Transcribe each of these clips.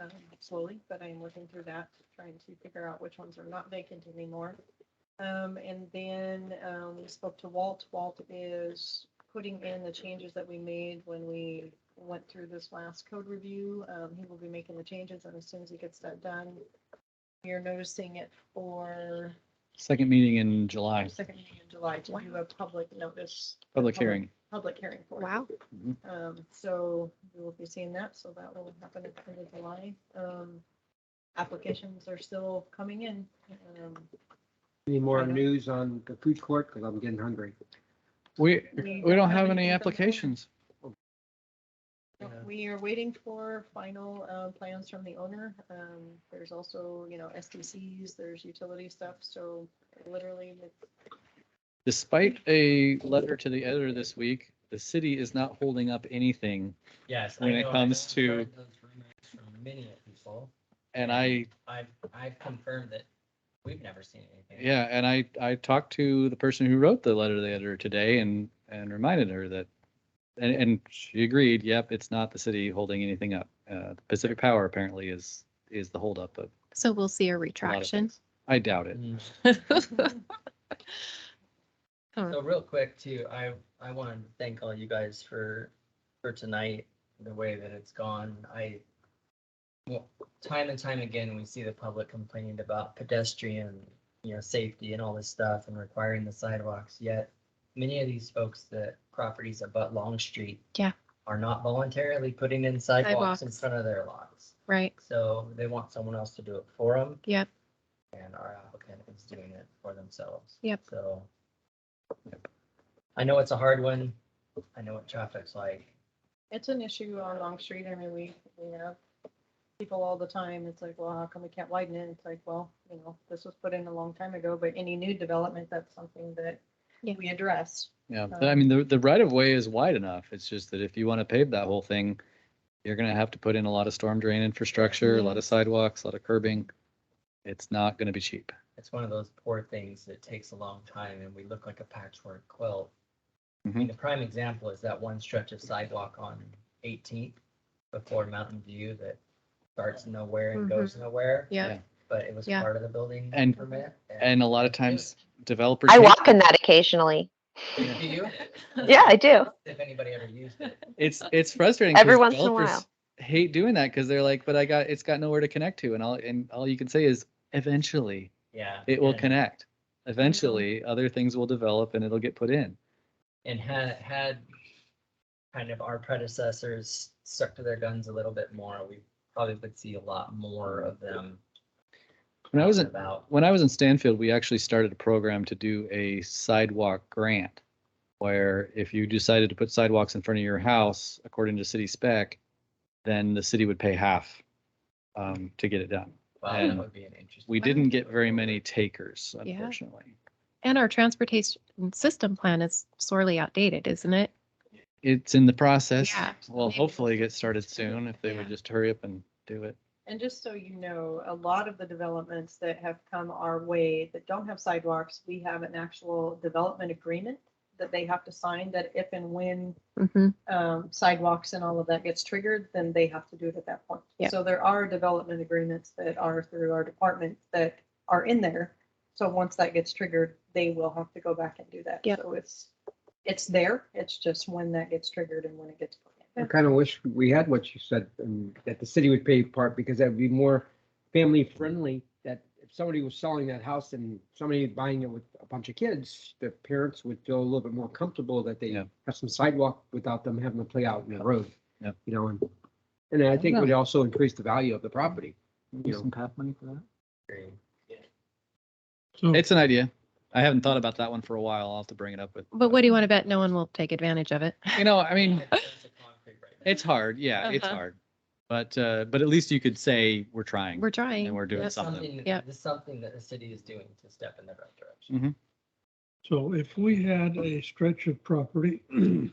um, slowly, but I am working through that, trying to figure out which ones are not vacant anymore. Um, and then, um, we spoke to Walt. Walt is putting in the changes that we made when we went through this last code review. Um, he will be making the changes and as soon as he gets that done, we are noticing it for Second meeting in July, second meeting in July to do a public notice, public hearing. public hearing for it. Wow. Um, so we will be seeing that, so that will happen at the end of July. Um, applications are still coming in. Um, Any more Right on. news on the food court? Because I'm getting hungry. We, We we don't anything have any from the- applications. Yeah. We are waiting for final, um, plans from the owner. Um, there's also, you know, SDCs, there's utility stuff, so literally it's Despite a letter to the editor this week, the city is not holding up anything. Yes. I when it know, and comes I've to- heard those rumors From many people, And I, I've, I've confirmed that we've never seen anything. yeah, and I, I talked to the person who wrote the letter to the editor today and, and reminded her that, and, and she agreed, yep, it's not the city holding anything up. Uh, Pacific Power apparently is, is the holdup of So we'll see a a lot of retraction. things. I doubt it. Mm. Huh. So real quick too, I, I want to thank all you guys for, for tonight, the way that it's gone. I, well, time and time again, we see the public complaining about pedestrian, you know, safety and all this stuff and requiring the sidewalks, yet many of these folks that properties abut Long Street. Yeah. Are not voluntarily putting in sidewalks in Sidewalks. front of their lots. Right. So they want someone else to do it for them. Yep. And our applicant is doing it for themselves. Yep. So. I know it's a hard one. I know what traffic's like. It's an issue on Long Street. I mean, we, we have people all the time. It's like, well, how come we can't widen it? It's like, well, you know, this was put in a long time ago, but any new development, that's something that Yeah. we address. Yeah, So- I mean, the, the right of way is wide enough. It's just that if you want to pave that whole thing, you're gonna have to put in a lot of storm drain infrastructure, a lot Mm. of sidewalks, a lot of curbing. It's not gonna be cheap. It's one of those poor things that takes a long time and we look like a patchwork quilt. I Mhm. mean, the prime example is that one stretch of sidewalk on eighteenth before Mountain View that starts nowhere and Mhm. goes nowhere. Yep. But it was Yeah. part of the building And- permit. And a lot of times developers. I hate- walk in that occasionally. Do you? Yeah, I do. If anybody ever used it. It's, it's frustrating. 'cause Every once in a developers while. Hate doing that because they're like, but I got, it's got nowhere to connect to. And all, and all you can say is eventually Yeah. it will and- connect. Eventually, other things will develop and it'll get put in. And had, had kind of our predecessors stuck to their guns a little bit more, we probably would see a lot more of them. When I was in, About, when I was in Stanfield, we actually started a program to do a sidewalk grant where if you decided to put sidewalks in front of your house, according to city spec, then the city would pay half um, to get it done. wow, And that would be an interesting. We didn't get very many takers, Yeah. unfortunately. And our transportation system plan is sorely outdated, isn't it? It's in the process. Yeah. Well, Maybe hopefully we'll get started soon if they would Yeah. just hurry up and do it. And just so you know, a lot of the developments that have come our way that don't have sidewalks, we have an actual development agreement that they have to sign that if and when Mm-hmm. um, sidewalks and all of that gets triggered, then they have to do it at that point. Yeah. So there are development agreements that are through our department that are in there. So once that gets triggered, they will have to go back and do that. Yeah. So it's, it's there. It's just when that gets triggered and when it gets. put I in. kind of wish we had what you said, um, that the city would pay part because that'd be more family friendly. That if somebody was selling that house and somebody buying it with a bunch of kids, the parents would feel a little bit more comfortable that they Yeah. have some sidewalk without them having to play out in the road. Yep. You know, and, and I think Yeah. it would also increase the value of the property. Maybe Yeah. some PAP money for that? theory. It's an idea. I haven't thought about that one for a while. I'll have to bring it up with. But what do you want to bet? No one will take advantage of it. You know, I mean, It's a concrete right now. It's hard, yeah, it's Uh-huh. hard. But uh, but at least you could say we're trying. We're trying. And we're doing Yep. something. Yeah. This is something that the city is doing to step in the right direction. So if we had a stretch of property and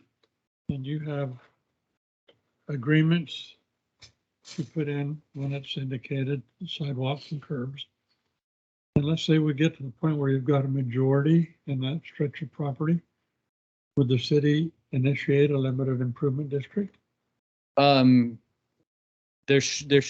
you have agreements to put in when it's indicated sidewalks and curbs. And let's say we get to the point where you've got a majority in that stretch of property. Would the city initiate a limited improvement district? Um, there sh- there